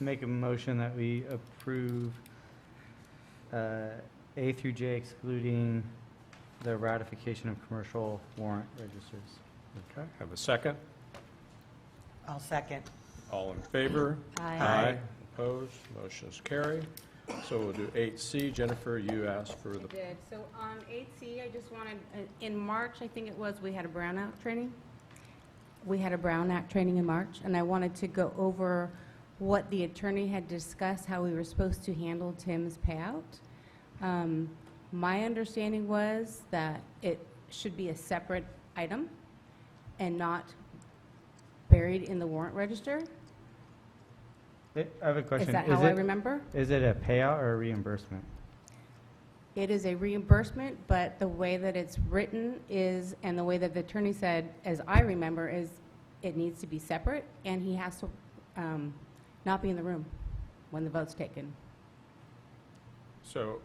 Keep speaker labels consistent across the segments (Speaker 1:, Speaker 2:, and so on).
Speaker 1: make a motion that we approve uh, A through J excluding the ratification of commercial warrant registers.
Speaker 2: Okay, have a second?
Speaker 3: I'll second.
Speaker 2: All in favor?
Speaker 1: Aye.
Speaker 2: Opposed? Motion is carried. So we'll do 8C. Jennifer, you asked for the,
Speaker 4: did. So on 8C, I just wanted, uh, in March, I think it was, we had a Brown Act training. We had a Brown Act training in March, and I wanted to go over what the attorney had discussed, how we were supposed to handle Tim's payout. Um, My understanding was that it should be a separate item and not buried in the warrant register.
Speaker 1: I Eh, I have a
Speaker 4: Is
Speaker 1: question.
Speaker 4: that how I
Speaker 1: it-
Speaker 4: remember?
Speaker 1: Is it a payout or a reimbursement?
Speaker 4: It is a reimbursement, but the way that it's written is, and the way that the attorney said, as I remember, is it needs to be separate, and he has to um, not be in the room when the vote's taken.
Speaker 2: so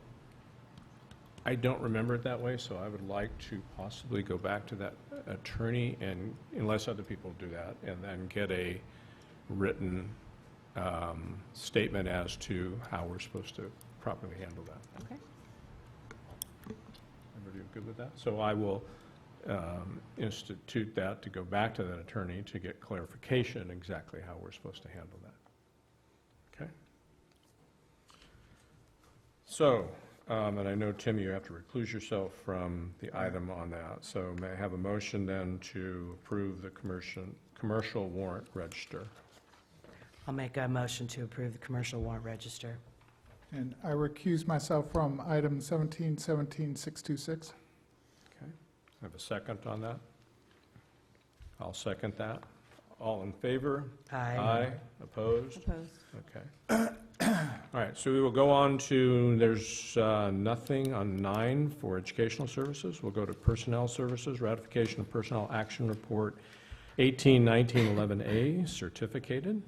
Speaker 2: I don't remember it that way, so I would like to possibly go back to that attorney and, unless other people do that, and then get a written um, statement as to how we're supposed to properly handle that.
Speaker 4: Okay.
Speaker 2: Everybody good with that? So I will um, institute that to go back to that attorney to get clarification exactly how we're supposed to handle that. Okay? So, um, and I know, Tim, you have to recluse yourself from the item on that. So may I have a motion then to approve the commercial, commercial warrant register?
Speaker 3: I'll make a motion to approve the commercial warrant register.
Speaker 5: And I recuse myself from item 1717626.
Speaker 2: Okay. Have a second on that? I'll second that. All in favor? Aye. Opposed?
Speaker 4: Opposed?
Speaker 2: Okay. All right, so we will go on to, there's uh, nothing on nine for educational services. We'll go to personnel services, ratification of personnel action report 181911A, certificated.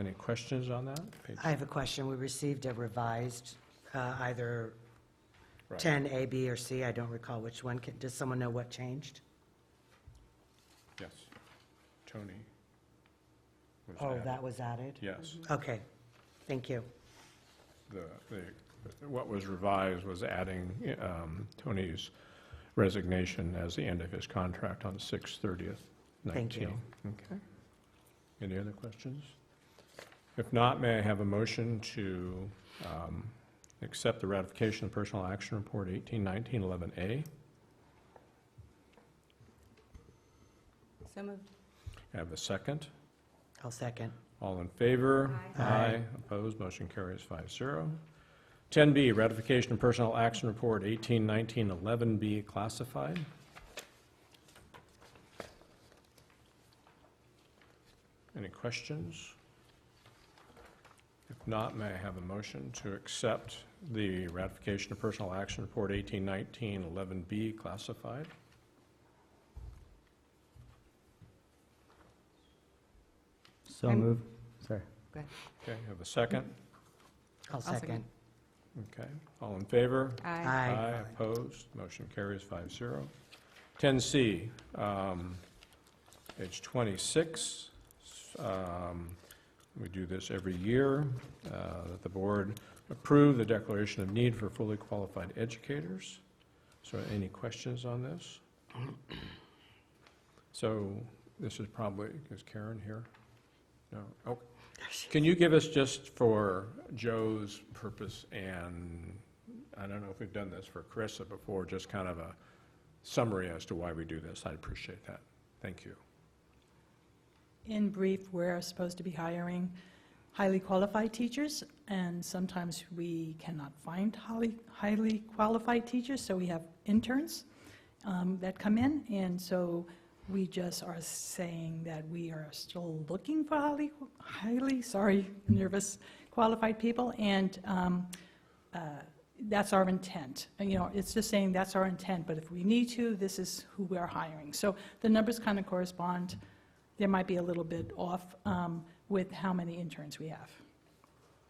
Speaker 2: Any questions on that? Page-
Speaker 3: I have a question. We received a revised, uh, either
Speaker 2: right.
Speaker 3: 10A, B, or C. I don't recall which one. Can- Does someone know what changed?
Speaker 2: Yes. Tony. was
Speaker 3: Oh,
Speaker 2: added.
Speaker 3: that was added?
Speaker 2: Yes.
Speaker 3: Okay, thank you.
Speaker 2: the, the, what was revised was adding um, Tony's resignation as the end of his contract on 6/30th, 19.
Speaker 3: Thank you.
Speaker 2: Okay. Any other questions? If not, may I have a motion to um, accept the ratification of Personal Action Report 181911A?
Speaker 4: So moved.
Speaker 2: Have a second?
Speaker 3: I'll second.
Speaker 2: All in favor?
Speaker 3: Aye.
Speaker 2: Opposed, motion carries five zero. 10B, ratification of personnel action report 181911B classified. Any questions? If not, may I have a motion to accept the ratification of personnel action report 181911B classified?
Speaker 1: So
Speaker 4: I'm-
Speaker 1: move, sorry.
Speaker 2: Okay, have a second?
Speaker 3: I'll second.
Speaker 4: second.
Speaker 2: Okay, all in favor?
Speaker 4: Aye.
Speaker 2: Aye, opposed, motion carries five zero. Ten C, um, page twenty-six, um, we do this every year, uh, that the board approve the declaration of need for fully qualified educators. So any questions on this? So this is probably, is Karen here? No, oh, can you give us just for Joe's purpose and, I don't know if we've done this for Carissa before, just kind of a summary as to why we do this? I'd appreciate that. Thank you.
Speaker 6: In brief, we're supposed to be hiring highly qualified teachers, and sometimes we cannot find highly, highly qualified teachers, so we have interns um, that come in, and so we just are saying that we are still looking for highly, highly, sorry, nervous, qualified people, and um, uh, that's our intent. And, You know, it's just saying that's our intent, but if we need to, this is who we are hiring. So the numbers kind of correspond there might be a little bit off um, with how many interns we have.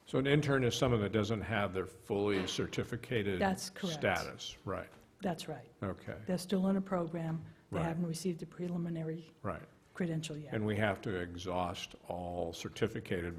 Speaker 2: So an intern is someone that doesn't have their fully certificated
Speaker 6: That's correct.
Speaker 2: status, right?
Speaker 6: That's right.
Speaker 2: Okay,
Speaker 6: They're still in a program. They
Speaker 2: Right.
Speaker 6: haven't received a preliminary
Speaker 2: right.
Speaker 6: credential yet.
Speaker 2: And we have to exhaust all certificated